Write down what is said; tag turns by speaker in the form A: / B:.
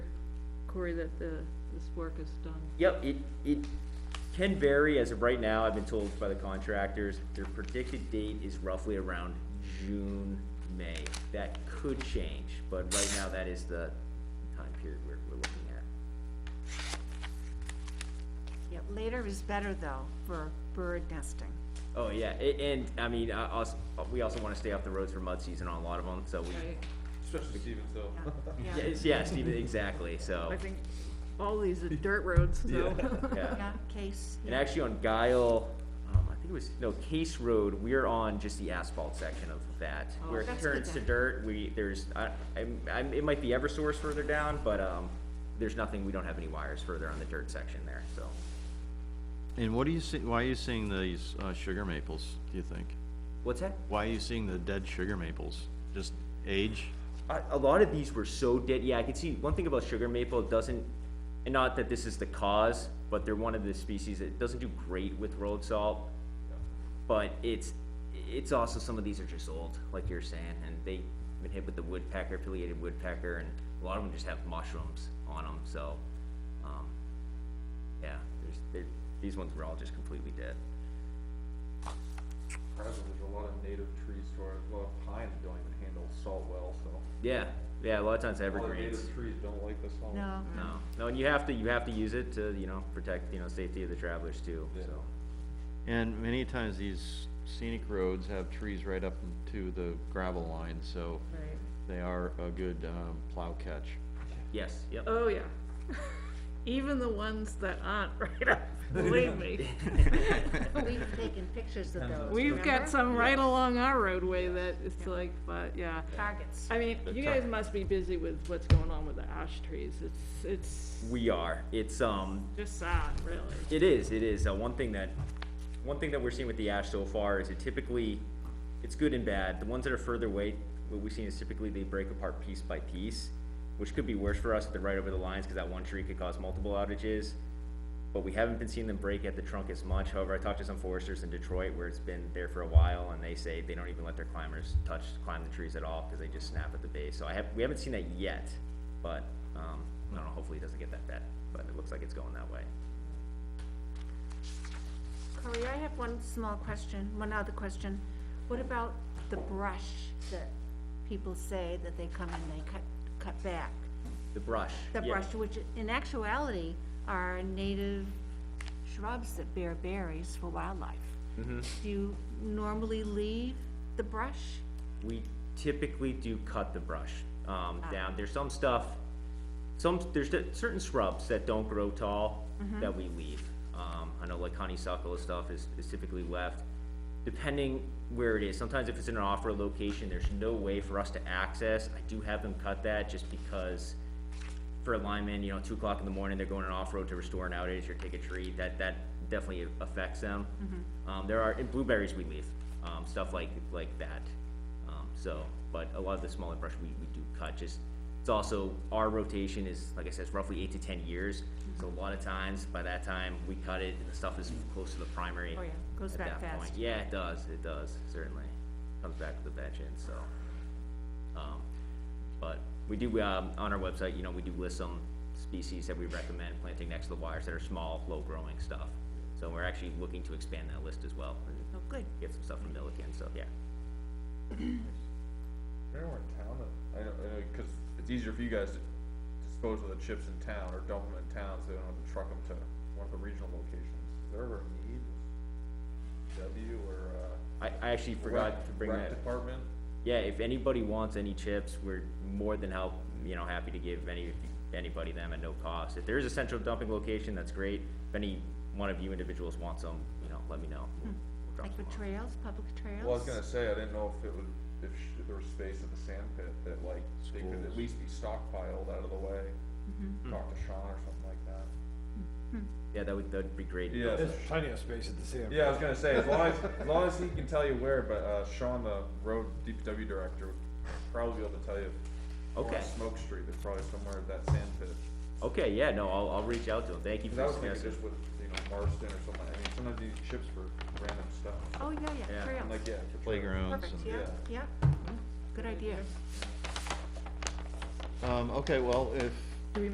A: Corey, that the, this work is done?
B: Yep, it, it can vary, as of right now, I've been told by the contractors, their predicted date is roughly around June, May. That could change, but right now, that is the time period we're, we're looking at.
C: Yeah, later is better though for bird nesting.
B: Oh, yeah, a- and, I mean, I, also, we also wanna stay off the roads for mud season on a lot of them, so we,
A: Right,
D: Especially Steven, so.
C: Yeah, yeah,
B: yes, yeah, Steve, exactly, so.
A: I think all these are dirt roads, so.
B: Yeah.
C: yeah, case.
B: And
C: yeah.
B: actually on Guile, um, I think it was, no, Case Road, we're on just the asphalt section of that. Where it
C: Oh, That's good
B: turns to
C: then.
B: dirt, we, there's, I, I'm, I'm, it might be Eversource further down, but, um, there's nothing, we don't have any wires further on the dirt section there, so.
E: And what are you see, why are you seeing these, uh, sugar maples, do you think?
B: What's that?
E: Why are you seeing the dead sugar maples? Just age?
B: A, a lot of these were so dead, yeah, I could see, one thing about sugar maple, it doesn't, and not that this is the cause, but they're one of the species that doesn't do great with road salt. But it's, it's also, some of these are just old, like you're saying, and they've been hit with the woodpecker, affiliated woodpecker, and a lot of them just have mushrooms on them, so, um, yeah, there's, there, these ones were all just completely dead.
D: Probably there's a lot of native trees to our, a lot of pines don't even handle salt well, so.
B: Yeah, yeah, a lot of times
D: A lot of
B: evergreens.
D: native trees don't like the salt.
C: No,
B: No, no, and you have to, you have to use it to, you know, protect, you know, safety of the travelers too,
D: Yeah.
B: so.
E: And many times these scenic roads have trees right up to the gravel line, so
A: Right.
E: they are a good, um, plow catch.
B: Yes, yep.
A: Oh, yeah. Even the ones that aren't right up, believe me.
C: we've taken pictures of those.
A: We've
C: remember?
A: got some right along our roadway that it's like, but, yeah.
C: Targets.
A: I mean, you guys must be busy with what's going on with the ash trees. It's, it's
B: We are, it's, um,
A: just sad, really.
B: it is, it is, uh, one thing that, one thing that we're seeing with the ash so far is it typically, it's good and bad. The ones that are further away, what we've seen is typically they break apart piece by piece, which could be worse for us if they're right over the lines, cause that one tree could cause multiple outages. But we haven't been seeing them break at the trunk as much, however, I talked to some foresters in Detroit where it's been there for a while, and they say they don't even let their climbers touch, climb the trees at all, cause they just snap at the base, so I have, we haven't seen that yet, but, um, I don't know, hopefully it doesn't get that bad, but it looks like it's going that way.
C: Corey, I have one small question, one other question. What about the brush that people say that they come and they cut, cut back?
B: The brush.
C: The
B: yeah.
C: brush, which in actuality are native shrubs that bear berries for wildlife. Do you normally leave the brush?
B: We typically do cut the brush, um,
C: Ah.
B: down. There's some stuff, some, there's cer- certain shrubs that don't grow tall
C: Mm-hmm.
B: that we leave. Um, I know like honeysuckle and stuff is, is typically left, depending where it is. Sometimes if it's in an off-road location, there's no way for us to access. I do have them cut that just because for a lineman, you know, two o'clock in the morning, they're going on off-road to restore an outage or take a tree, that, that definitely affects them.
C: Mm-hmm.
B: Um, there are, and blueberries we leave, um, stuff like, like that, um, so, but a lot of the smaller brush we, we do cut, just, it's also, our rotation is, like I said, it's roughly eight to ten years,
C: Mm-hmm.
B: so a lot of times, by that time, we cut it, and the stuff is close to the primary.
C: Oh, yeah. Goes
B: at
C: back
B: that point.
C: fast.
B: Yeah, it does, it does, certainly, comes back to the bench end, so, um, but we do, um, on our website, you know, we do list some species that we recommend planting next to the wires that are small, low-growing stuff. So we're actually looking to expand that list as well, and
C: Oh, good.
B: get some stuff from Milliken, so, yeah.
D: They're in town, that- I know, I know, cause it's easier for you guys to dispose of the chips in town or dump them in town, so they don't have to truck them to one of the regional locations. Is there ever a need? W or, uh?
B: I, I actually forgot
D: rec-
B: to bring that.
D: rec Department?
B: Yeah, if anybody wants any chips, we're more than help, you know, happy to give any, anybody them at no cost. If there is a central dumping location, that's great. If any one of you individuals wants them, you know, let me know. We'll drop
C: Like
B: some
C: for
B: off.
C: trails, public trails?
D: Well, I was gonna say, I didn't know if it would, if sh- there was space at the sand pit that like, they could at
E: Schools.
D: least be stockpiled out of the way. Talk to Sean or something like that.
B: Yeah, that would, that'd be great.
D: Yeah,
F: There's plenty of space at the sand.
D: yeah, I was gonna say, as long as, as long as he can tell you where, but, uh, Sean, the road DPW director, would probably be able to tell you. Or on
B: Okay.
D: Smoke Street, there's probably somewhere at that sand pit.
B: Okay, yeah, no, I'll, I'll reach out to them. Thank you
D: Cause
B: for
D: I was thinking
B: suggesting.
D: just with, you know, Marston or something, I mean, sometimes these chips for random stuff,
C: Oh, yeah,
B: Yeah,
C: yeah, trails.
D: I'm like, yeah. for sure.
E: Playgrounds
C: Perfect,
E: and-
C: yeah,
D: Yeah.
C: yeah. Good idea.
E: Um, okay, well, if